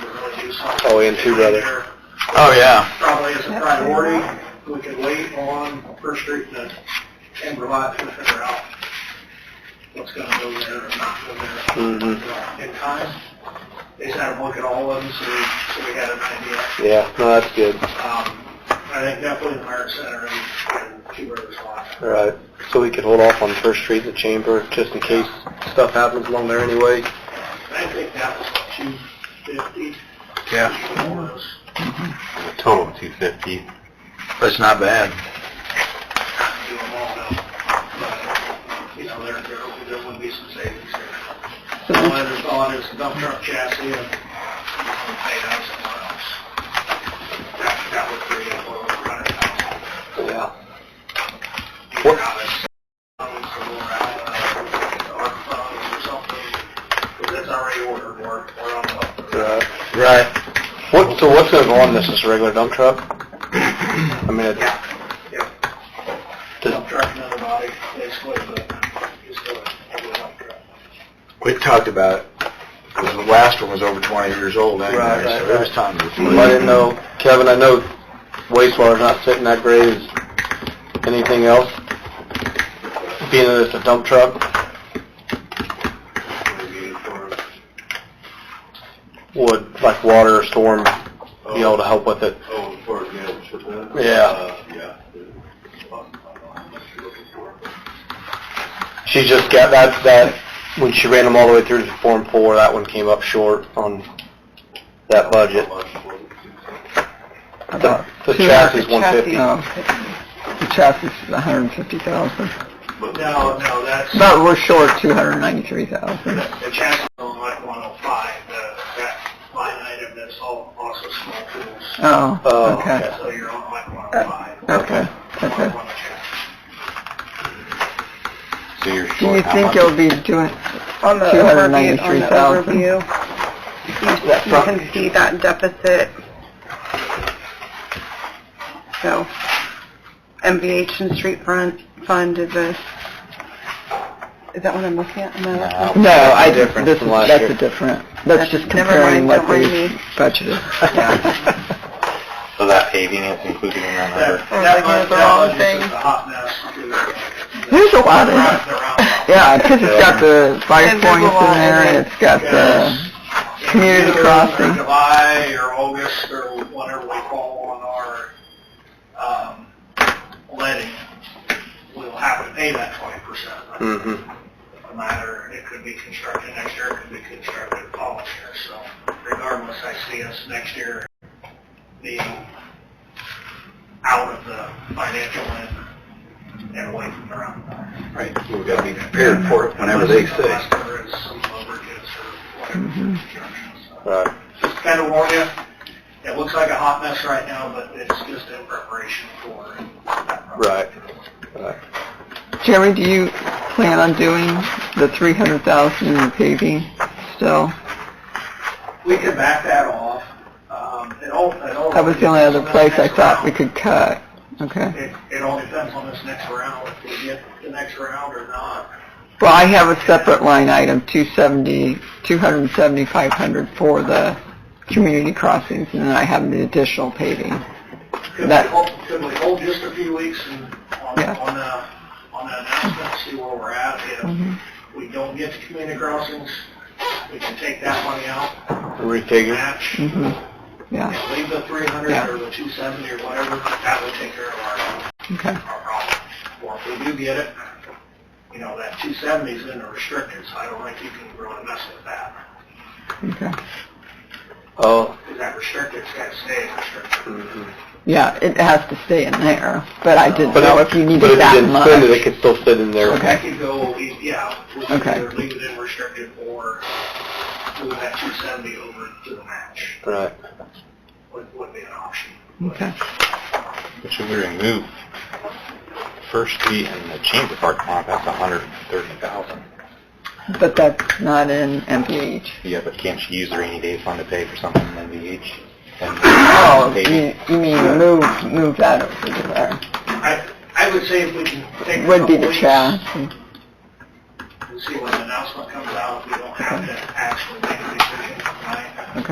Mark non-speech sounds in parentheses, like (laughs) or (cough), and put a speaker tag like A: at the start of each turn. A: something.
B: all in too, brother.
A: there
C: Oh, yeah.
A: Probably is a priority, we could wait on First Street and Timberline to figure out what's gonna go there or not go there
B: Mm-hmm.
A: in time. They just had to look at all of them, so we, so we had an idea.
B: Yeah, no, that's good.
A: Um, I think definitely the Merit Center and and Two Rivers Lot.
B: All right. So we could hold off on First Street and the Chamber just in case stuff happens along there anyway.
A: I think that was two fifty.
C: Yeah.
D: Total of two fifty.
C: That's not bad.
A: do them all now. But, you know, there, there, there would be some savings there. The other thought is dump truck chassis and paid out somewhere else. That, that would free up over a hundred thousand.
B: Yeah.
A: Either out of funds or out of, or funds or something, because that's already ordered, we're, we're on the.
B: Right.
C: Right.
B: What? So what's going to go on this? Just a regular dump truck?
C: (clears throat)
B: I mean, it,
A: Yeah, yeah.
B: Does-
A: Dump truck, another body, basically, but just a, a dump truck.
C: We talked about it. 'cause the last one was over 20 years old
B: Right,
C: anyway,
B: right,
C: so it was
B: right.
C: time to
B: I didn't
C: replace.
B: know, Kevin. I know wastewater's not sitting that great. Is anything else? Being that it's a dump truck would like water storm be able to help with it.
D: Oh, for example,
A: Uh,
B: Yeah.
D: yeah.
B: She just got that that when she ran them all the way through to Form Four, that one came up short on that budget.
E: Uh-huh.
B: The, the chassis is one fifty.
E: No, Oh, The chassis is a hundred and fifty thousand.
A: No, no, that's.
E: But we're short two hundred and ninety-three thousand.
A: The chassis on like 105, the- that line item that's all also small tools.
B: Oh,
E: Oh, okay,
B: okay.
A: So you're on like 105.
E: okay,
A: on-
E: okay.
A: on the chassis.
D: So you're
E: Do you
D: short how
E: think
D: much?
E: you'll be doing
F: On the
E: Two hundred and
F: overview, on
E: ninety-three
F: the
E: thousand.
F: overview,
B: That
F: you- you
B: front-
F: can see that deficit. So, MVH and street front fund is a, is that what I'm looking at? Am I looking at?
E: No, I,
B: Different
E: this is,
B: from last
E: that's
B: year.
E: a different, that's just
F: Never
E: comparing
F: mind,
E: what
F: don't mind
E: we
F: me.
E: budgeted.
B: (laughs)
D: So that paving is included in that number?
A: That-
F: Or
A: that
F: like
A: bud-
F: it's the
A: that
F: wrong
A: budget's
F: thing.
A: just a hot mess. too.
E: There's a lot
A: The
E: in
A: round-
E: it.
A: the roundabout.
E: Yeah, because it's got the fire
F: And there's a
E: points in
F: lot in
E: there, and
F: it.
E: it's got the,
A: Yes.
E: community
A: Either
E: crossing.
A: in July or August or whenever we fall on our, um, letting, we'll have to pay that 20%. right?
B: hmm
E: mm-hmm.
A: a matter, it could be constructed next year, it could be constructed the following year, so regardless, I see us next year being out of the financial end and away from the roundabout.
C: Right, we've got to be prepared for it whenever they say.
A: Unless there is some overages or whatever
E: Mm-hmm.
A: construction, so.
B: Right.
A: Just kind of warn you, it looks like a hot mess right now, but it's just in preparation for that.
B: Right.
E: Jerry, do you plan on doing the three hundred thousand in paving still?
A: We can back that off. Um, it all, it all.
E: That was the only other place I thought we could cut, okay?
A: It, it all depends on this next round, if we get the next round or not.
E: Well, I have a separate line item, 270, 27500 for the community crossings, and then I have the additional paving.
A: Could we
E: That-
A: hold, could we hold just a few weeks and on,
E: Yeah.
A: on the, on the announcement, see where we're at? If
E: Mm-hmm.
A: we don't get to community crossings, we can take that money out,
B: Refigure.
A: match,
E: hmm yeah,
A: and leave the three hundred
E: Yeah.
A: or the two seventy or whatever, that would take care of
E: okay.
A: our, our problem. Or if we do get it, you know, that two seventy's in the restricted, so I don't think you can really mess with that.
E: Okay.
B: Oh.
A: Because that restricted's gotta stay restricted.
E: Mm-hmm.
B: hmm
E: Yeah, it has to stay in there, but I didn't
B: But
E: know
B: it-
E: if you
B: But if you
E: needed that
B: didn't spend it,
E: much.
B: it could still sit in there.
E: Okay.
A: That could go, yeah, we could
E: Okay.
A: either leave it in restricted or move that two seventy over to the match,
B: Right.
A: would, would be an option.
E: Okay.
D: Should we remove First Street and the Chamber parking lot? That's a hundred and thirty thousand.
E: But that's not in MPH.
D: Yeah, but can't you use the rainy day fund to pay for something in MVH? And-
E: Oh,
D: Paving.
E: you you mean move, move that over to there.
A: I, I would say if we can take a
E: Would be
A: couple
E: the
A: weeks
E: chassis.
A: and see when the announcement comes out, we don't have to actually make a decision tonight.